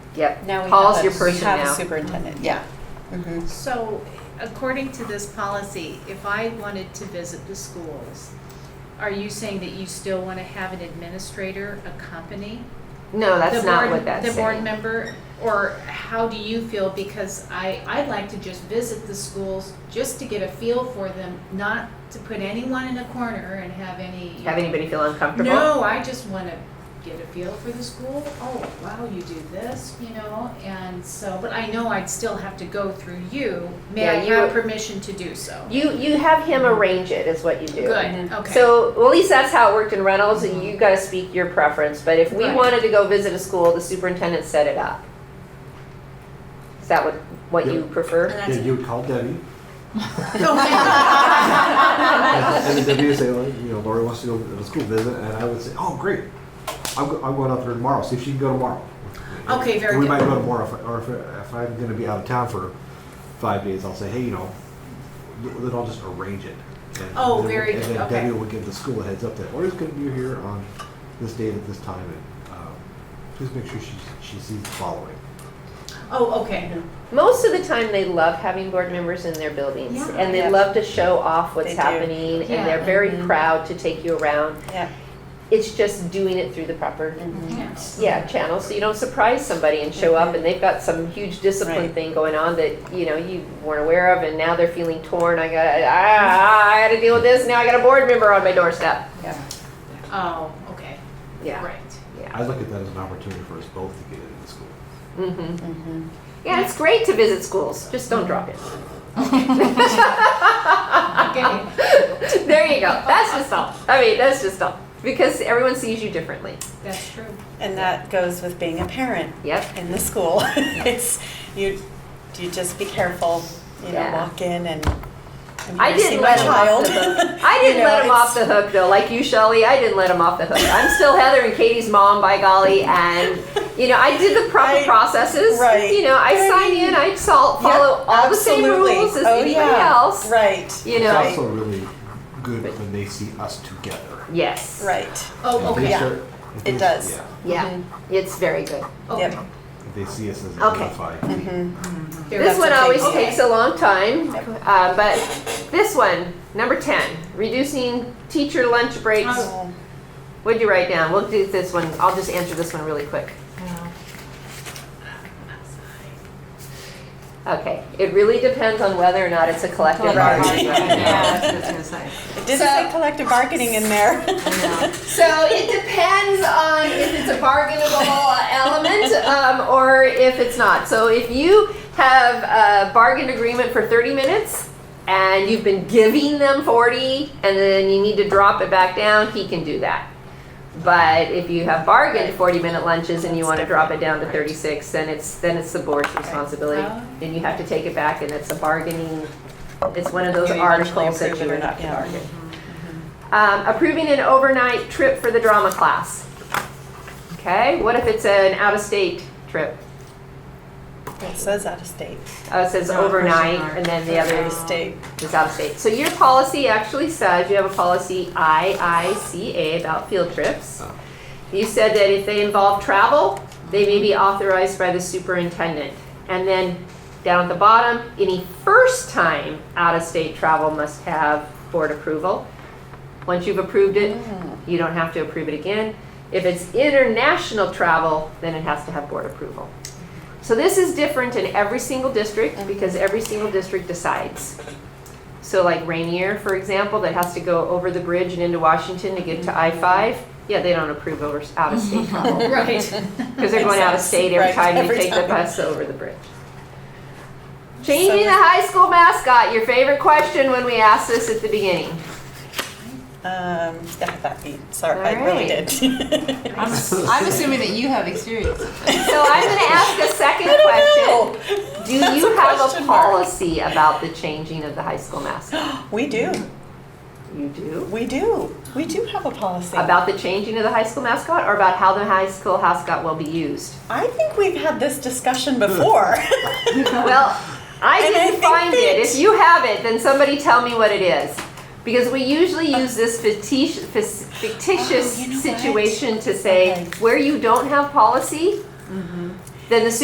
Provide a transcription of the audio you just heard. Yep. Now we Paul's have your a- person We have now. Mm-hmm. a superintendent, yeah. Mhm. So according to this policy, if I wanted to visit the schools, are you saying that you still want to have an administrator accompany? No, that's the not board- what that's The board saying. member, or how do you feel? Because I, I'd like to just visit the schools, just to get a feel for them, not to put anyone in a corner and have any. Have anybody feel uncomfortable? No, I just want to get a feel for the school. Oh, wow, you do this, you know, and so, but I know I'd still have to go through you. May I Yeah, you have would- permission to do so? You you have him arrange it is what you do. Good, okay. Mm-hmm. So well, at least that's how it worked in Reynolds. and You got to speak your preference. But if we Right. wanted to go visit a school, the superintendent set it up. Is that what what you prefer? And Yeah, you would call Debbie. that's- And then Debbie would say, "Well, you know, Lori wants to go to the school visit, and I would say, oh, great. I'm, go- I'm going out there tomorrow, see if she can go tomorrow. Okay, very We might good. go tomorrow, if I- or if, if I'm gonna be out of town for five days, I'll say, hey, you know, th- then I'll just arrange it. And Oh, then- very good, And then okay. Debbie would give the school a heads up that Lori's gonna be here on this date at this time, and, um, please make sure she, she sees the following. Oh, okay. Most of the time, they love having board members in their buildings, Yeah. and they Yeah. love to show off what's They do. happening, Yeah. Mm-hmm. and they're very Mhm. proud to take you around. Yeah. It's just doing it through the Mm-hmm. proper Yes. Yeah, channel, so you don't surprise somebody and show up and they've got some huge discipline Right. thing going on that, you know, you weren't aware of and now they're feeling torn, I got, ah, I gotta deal with this, now I got a board member on my doorstep. Yeah. Oh, okay, Yeah, great. I look at that as an opportunity for us both to get into the school. hmm Mhm. Yeah, it's great to visit schools, just don't drop it. Okay. There you go, that's just all, I mean, that's just all, because everyone sees you differently. That's true. And that goes with being a parent Yep, in the school. It's, you, you just be careful, you know, Yeah. walk in and. I'm I here to see didn't my let him off child. the hook. I didn't You know, let him off the it's- hook though, like you, Shelley. I didn't let him off the hook. I'm still Heather and Katie's mom, by golly, and you know I did the proper Right. processes. Right. You know I I sign mean- in, I sol- Yeah, follow all the same absolutely. rules as Oh, anybody yeah. else. Right. You It's know. also really good when they see us together. Yes. Right. Oh, If they okay, start- if It they- does. Yeah, Yeah. It's very good. okay. Yep. if they see us as a Okay. unified. Mm-hmm. Mm-hmm. Very This That's one okay. always Okay. takes a long time, Yep. uh, but this one, number ten, reducing teacher lunch breaks. Oh. What'd you write down? We'll do this one. I'll just answer this one really quick. Okay, it really depends on whether or not it's a collective Right. bargaining. Yeah. agreement. It did So- say collective bargaining in there. So it depends on if it's a bargainable element um, or if it's not. So if you have a bargain agreement for 30 minutes and you've been giving them 40 and then you need to drop it back down, he can do that. But if you have bargained 40 minute lunches and you want to drop it down to 36, then it's, then it's the board's responsibility. Oh. Then you have to take it back and it's a bargaining, it's one of those Do you eventually articles that approve you it or would not? have to Yeah. bargain. Um, approving an overnight trip for the drama class. Okay, what if it's an out-of-state trip? It says out of state. Oh, it says No, overnight, and then the Out of other state. is out-of-state. So your policy actually says, you have a policy IICA about field trips. You said that if they involve travel, they may be authorized by the superintendent. And then down at the bottom, any first-time out-of-state travel must have board approval. Once you've approved it, Mm. you don't have to approve it again. If it's international travel, then it has to have board approval. So this is different in every single Mm-hmm. district because every single district decides. So like Rainier, for example, that has to go over the bridge and into Washington to Mm-hmm. get to I-5, yeah, they don't approve over, out of state travel. Right. Because they're going out of Makes sense. state every Right, time you every take the time. bus over the bridge. Changing the high school mascot, your favorite question when we asked this at the beginning. Um, yeah, that beat, sorry, I All really right. did. I'm, I'm assuming that you have experience. So I'm gonna ask a second question. Do That's you a have a question mark. policy about the changing of the high school mascot? We do, You do? we do, we do have a policy. About the changing of the high school mascot or about how the high school mascot will be used? I think we've had this discussion before. Well, I And I didn't think find it. that- If you have it, then somebody tell me what it is. Because we usually use this fictitious, fictitious Oh, you know what? situation to say, Okay. Mm-hmm. where you don't have policy, then the